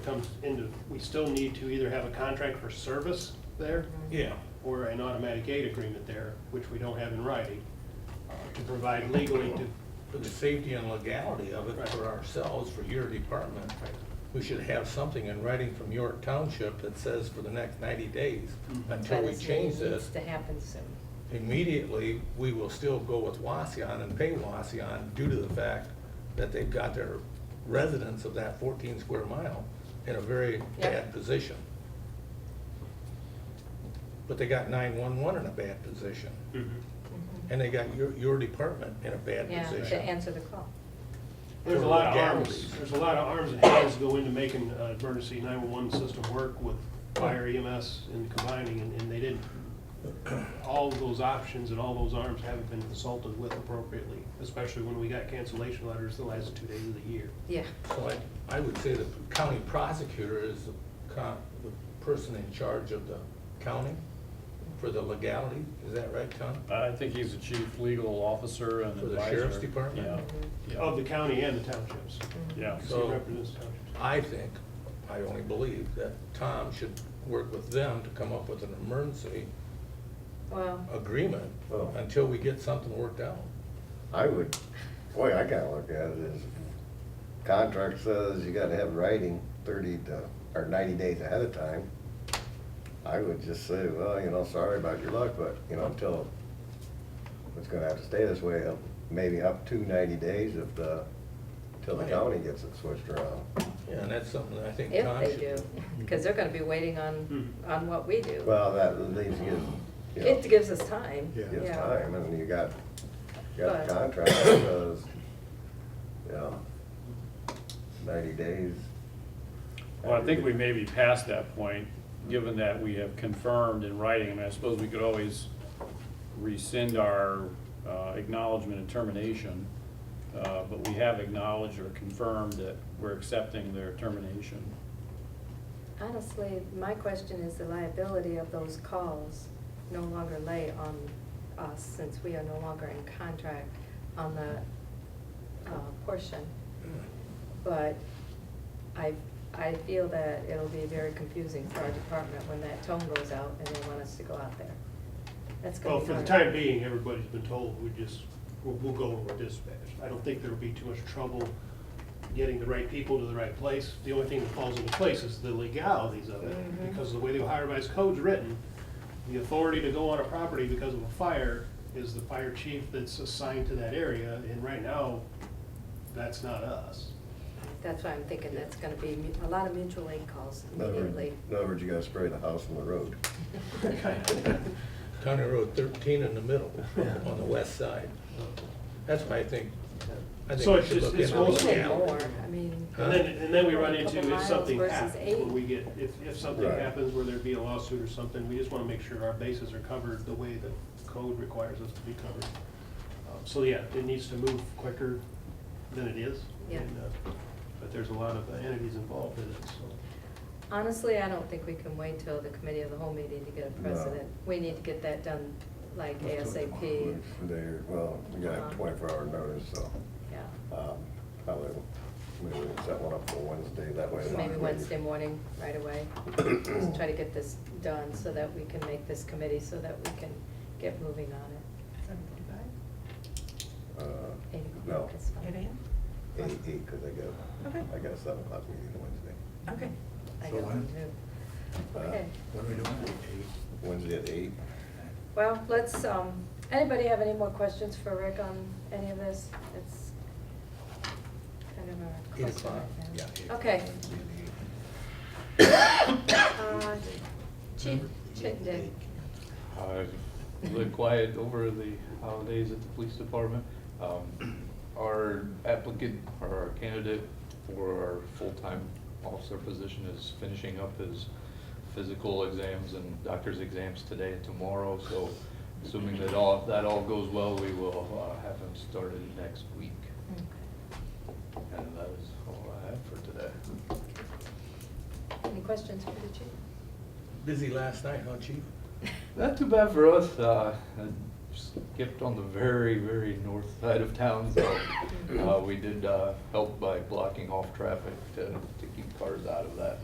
comes into, we still need to either have a contract for service there Yeah, or an automatic aid agreement there, which we don't have in writing, uh, to provide legally to, for the safety and legality of it for ourselves, for your department, we should have something in writing from York Township that says for the next ninety days, until But we it's- it change this, Needs to happen soon. immediately, we will still go with Waseon and pay Waseon due to the fact that they've got their residents of that fourteen square mile in a very Yep. bad position. But they got nine-one-one in a bad position, and they got your, your department in a bad Yeah, position. to answer the call. There's a lot of arms, there's a lot of arms and hands go into making uh, emergency nine-one-one system work with fire EMS and combining, and and they didn't. All of those options and all those arms haven't been consulted with appropriately, especially when we got cancellation letters the last two days of the year. Yeah, So I, I would say the county prosecutor is the con, the person in charge of the county for the legality, is that right, Tom? I think he's the chief legal officer and For advisor. the sheriff's department? Yeah. Of the county and the townships. Yeah. He So- represents townships. I think, I only believe, that Tom should work with them to come up with an emergency well, Oh, agreement Well- until we get something worked out. I would, boy, I gotta look at it as contract says you gotta have writing thirty to, or ninety days ahead of time. I would just say, well, you know, sorry about your luck, but, you know, until, it's gonna have to stay this way, uh, maybe up to ninety days if the, till the Right. county gets it switched around. Yeah, And that's something that I think if Tom they should. do, because they're gonna be waiting on, Hmm. on what we do. Well, that leaves you, you know, It gives us time. Yeah. gives time, and you got, you got the But- contract, because, you know, ninety days. Well, I think we may be past that point, given that we have confirmed in writing, I mean, I suppose we could always rescind our uh, acknowledgement and termination, uh, but we have acknowledged or confirmed that we're accepting their termination. Honestly, my question is the liability of those calls no longer lay on us, since we are no longer in contract on the, uh, portion. But I, I feel that it'll be very confusing for our department when that tone goes out and they want us to go out there. That's gonna Well, be for the hard. time being, everybody's been told, we just, we'll, we'll go over dispatch. I don't think there'll be too much trouble getting the right people to the right place. The only thing that falls into place is the legalities of it, Mhm. because of the way the Ohio Revised Code's written, the authority to go on a property because of a fire is the fire chief that's assigned to that area, and right now, that's not us. That's why I'm thinking that's gonna be mu- a lot of mutual aid calls In other words- immediately. in other words, you gotta spray the house from the road. County Road thirteen in the middle, on the west side. That's why I think, I So think we it's should just- look into it's the mostly- Even legality. more, I mean, And then, and then we run into Couple if something miles versus happens, eight. when we get, if, if something Right. happens where there'd be a lawsuit or something, we just wanna make sure our bases are covered the way the code requires us to be covered. Um, So, yeah, it needs to move quicker than it is. Yeah. and, uh, But there's a lot of entities involved in it, so. honestly, I don't think we can wait till the committee of the whole meeting to get a No. precedent. We need to get that done like ASAP, There, well, you gotta Uh-huh. have twenty-four hour notice, so, yeah. um, probably, maybe we can set one up for Wednesday, that way. Maybe Wednesday morning, right away. Just try to get this done so that we can make this committee, so that we can get moving on it. Uh, Eight o'clock No, is fine. Eight AM? eight, eight, cause I got, Okay. I got a seven o'clock meeting Wednesday. Okay. I So don't when? know. Uh, Okay, What are we doing? Wednesday at eight. well, let's, um, anybody have any more questions for Rick on any of this? It's kind of a Eight question o'clock, right yeah. now. eight. Okay, Wednesday at eight. uh, Chief Chittenden, Uh, Live quiet over the holidays at the police department. Um, Our applicant, or our candidate for our full-time officer position is finishing up his physical exams and doctor's exams today and tomorrow, so assuming that all, that all goes well, we will uh, have him started next week. And that is all I have for today. Mm. any questions for the chief? Busy last night, huh, chief? Not too bad for us. Uh, skipped on the very, very north side of town, so uh, we did uh, help by blocking off traffic to to keep cars out of that